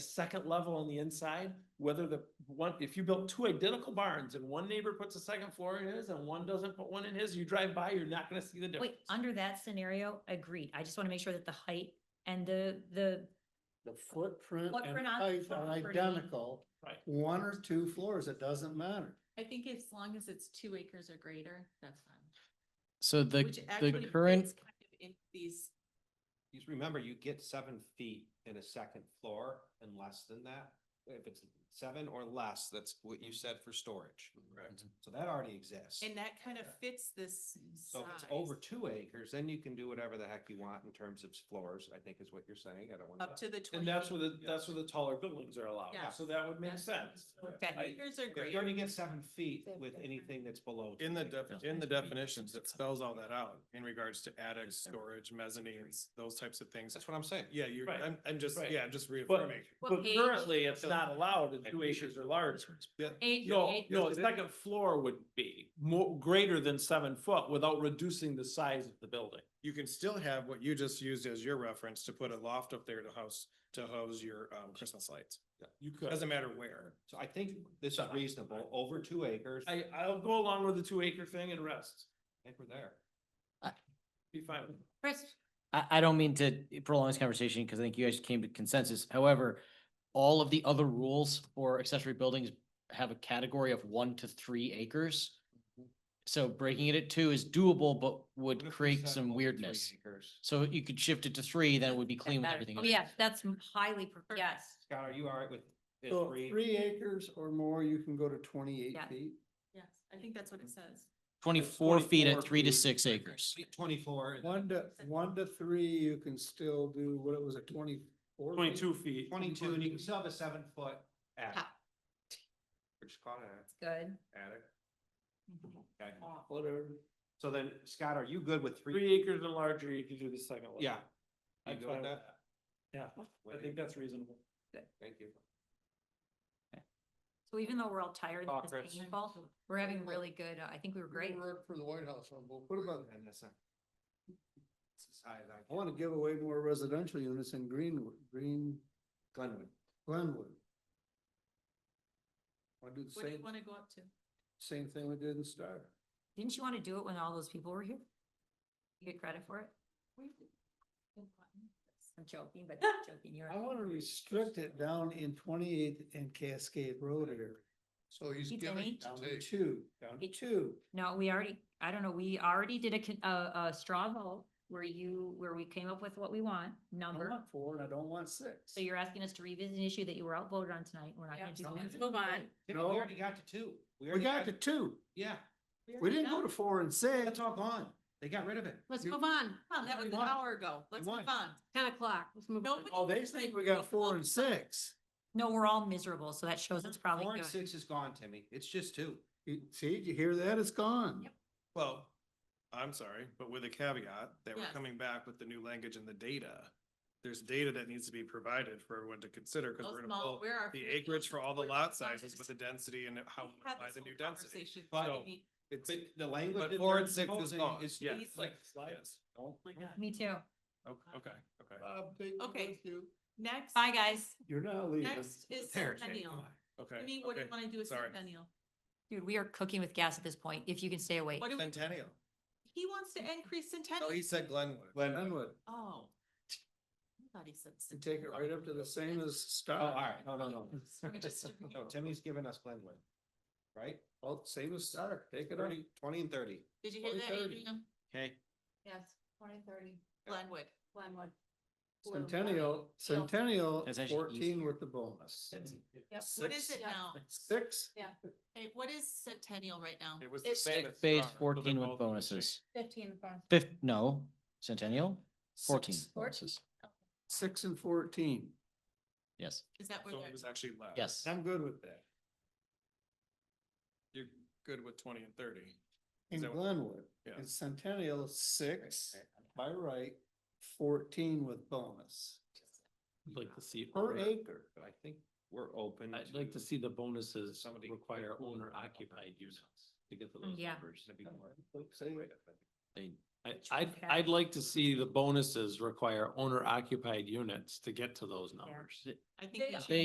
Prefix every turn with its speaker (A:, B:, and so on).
A: second level on the inside, whether the one, if you built two identical barns and one neighbor puts a second floor in his and one doesn't put one in his, you drive by, you're not gonna see the difference.
B: Wait, under that scenario, agreed. I just want to make sure that the height and the, the,
C: The footprint
B: Footprint
C: and
B: on
C: height are
B: property.
C: identical,
A: Right.
C: one or two floors, it doesn't matter.
D: I think as long as it's two acres or greater, that's fine.
E: So the,
D: Which
E: the
D: actually
E: current,
D: fits kind of in These,
F: Just remember, you get seven feet in a second floor and less than that. If it's seven or less, that's what you said for storage.
E: Mm-hmm.
F: Correct. So that already exists.
D: and that kind of fits this
F: So
D: size.
F: if it's over two acres, then you can do whatever the heck you want in terms of floors, I think is what you're saying. I don't want.
D: Up to the twenty.
A: And that's where the, that's where the taller buildings are allowed,
D: Yeah.
A: so that would make sense.
B: Okay.
F: I-
D: Acres are
F: If you're
D: greater.
F: gonna get seven feet with anything that's below.
G: In the
F: two acres.
G: defi- in the definitions, it spells all that out in regards to attics, storage, mezzanines, those types of things.
F: That's what I'm saying.
G: Yeah, you're,
A: Right.
G: I'm, I'm just,
A: Right.
G: yeah, I'm just
A: But,
G: reaffirming.
A: but
B: page?
A: currently, it's not allowed in two acres or larger.
B: eight,
A: No,
B: eight-
A: no, the second floor would be more, greater than seven foot without reducing the size of the building.
G: You can still have what you just used as your reference to put a loft up there to house, to house your, um, Christmas lights.
A: You could.
G: Doesn't matter where.
F: So I think this is reasonable, over two acres, I
A: I, I'll go along with the two acre thing and rest,
F: think we're there.
A: be fine. with it.
B: Chris,
E: I, I don't mean to prolong this conversation because I think you guys came to consensus. However, all of the other rules for accessory buildings have a category of one to three acres. So breaking it at two is doable, but
F: What
E: would
F: if we
E: create
F: said
E: some
F: over three
E: weirdness.
F: acres?
E: So you could shift it to three, then it would be clean with
B: better.
E: everything.
B: Oh,
E: else.
B: yeah, that's highly, per- yes.
F: Scott, are you all right with? the
C: So
F: three?
C: three acres or more, you can go to twenty-eight
B: Yeah.
C: feet.
D: Yes, I think that's what it says.
E: Twenty-four feet at
F: 24
E: three to
F: feet.
E: six acres.
F: Twenty-four. and-
C: One to, one to three, you can still do, what it was, a twenty-four?
A: Twenty-two feet.
F: twenty-two, and you can still have a seven-foot attic.
B: Ha.
F: We're just calling it
B: Good.
F: an attic. Okay.
C: Whatever.
F: So then, Scott, are you good with three?
A: Three acres and larger, you can do the second one.
F: Yeah. You
A: I'm
F: good
A: fine
F: with
A: with
F: that?
A: Yeah, I think that's reasonable.
F: Thank you.
B: So even though we're all tired,
F: Oh,
B: this
F: Chris.
B: is painful, we're having really good, uh, I think we were great.
E: Mm-hmm.
C: Work For the White House, on both. what about,
F: And that's not- it's as high as I
C: I
F: can.
C: want to give away more residential units in Greenwood, Green,
F: Glenwood.
C: Glenwood. Want to do the
D: What do
C: same,
D: you want to go up to?
C: same thing we did in Star.
B: Didn't you want to do it when all those people were here? You get credit for it? I'm joking, but not joking, you're.
C: I want to restrict it down in twenty-eighth and Cascade Road area. So he's
B: He giving didn't?
C: Down to two, down to
B: It-
C: two.
B: No, we already, I don't know, we already did a, con- a, a straw vote where you, where we came up with what we want,
C: I
B: number.
C: want four and I don't want six.
B: So you're asking us to revisit an issue that you were outvoted on tonight. We're not gonna do
D: Let's
B: that.
D: move on.
F: We
C: No.
F: already got to two.
C: We
F: already
C: got to two.
F: Yeah,
C: We didn't go to four and six.
F: that's all gone. They got rid of it.
D: Let's
C: You-
D: move on. Come on, that
C: You
D: was an
C: won.
D: hour ago. Let's
C: won.
D: move on. Ten o'clock. Let's move on.
C: Oh, they think we got four and six.
B: No, we're all miserable, so that shows it's
F: Four
B: probably
F: and
B: good.
F: six is gone, Timmy. It's just two.
C: You- See, did you hear that? It's gone.
B: Yep.
G: Well, I'm sorry, but with a caveat that we're
D: Yes.
G: coming back with the new language and the data. There's data that needs to be provided for everyone to consider because
D: Those
G: we're gonna
D: small-
G: pull
D: where are
G: the
D: food
G: acreage for all the
D: fields?
G: lot sizes with the
D: We
G: density and how we
D: had
G: apply
D: this
G: the
D: whole
G: new density.
D: conversation,
F: But-
D: so we-
G: It's,
F: But the language.
G: but
F: that
G: four
F: they're
G: and six is
F: proposing
G: gone.
F: is-
G: Yeah.
D: It's like
G: Yes.
A: Oh my God.
B: Me too.
G: O- Okay, okay,
C: Bob, take it
D: Okay.
C: with you.
D: Next.
B: Bye, guys.
C: You're not leaving.
D: Next is
F: There, Jake.
D: centennial.
G: okay.
D: Timmy, what do you
G: okay.
D: want to do with
G: sorry.
D: centennial?
B: Dude, we are cooking with gas at this point, if you can stay awake.
D: What do we,
G: Centennial.
D: he wants to increase
G: No,
D: centennial.
G: he said Glenwood.
F: Glenwood.
C: Glenwood,
D: Oh. I thought he said.
C: and take it right up to the same as
F: Oh,
C: Star.
F: all right. No, no, no.
D: We're just-
F: No, Timmy's giving us Glenwood, right?
C: Well, same as Star. Take it up.
F: Thirty, twenty and thirty.
D: Did you hear that,
C: 2030.
D: Adrian?
F: Okay.
D: Yes, twenty thirty. Glenwood. Glenwood.
C: Centennial, Centennial,
E: That's actually
C: fourteen
E: easier.
C: with the bonus.
D: What is
C: Six-
D: it now?
C: Six?
D: Hey, what is centennial right now?
G: It was the
D: It's
G: same as
E: Phase
G: Star, so they're
E: fourteen
G: both
E: with
G: the same.
E: bonuses.
D: Fifteen.
E: Fifth, no, centennial, fourteen,
C: Six bonuses. Six and fourteen.
E: yes,
D: Is that where
G: So
D: they're?
G: it was actually less.
E: yes.
C: I'm good with that.
G: You're good with twenty and thirty.
C: In
G: that what-
C: Glenwood,
G: Yeah.
C: in Centennial, six by right, fourteen with bonus
A: I'd like to see.
C: per
A: owner-
C: acre.
F: But I think we're open.
A: I'd like to see the bonuses
F: Somebody-
A: require owner occupied use to get to those
B: Yeah.
A: numbers.
F: It'd be more-
C: Say it.
E: They
A: I,
B: Which we
A: I'd,
B: have.
A: I'd like to see the bonuses require owner occupied units to get to those numbers.
F: I
B: think we
F: should.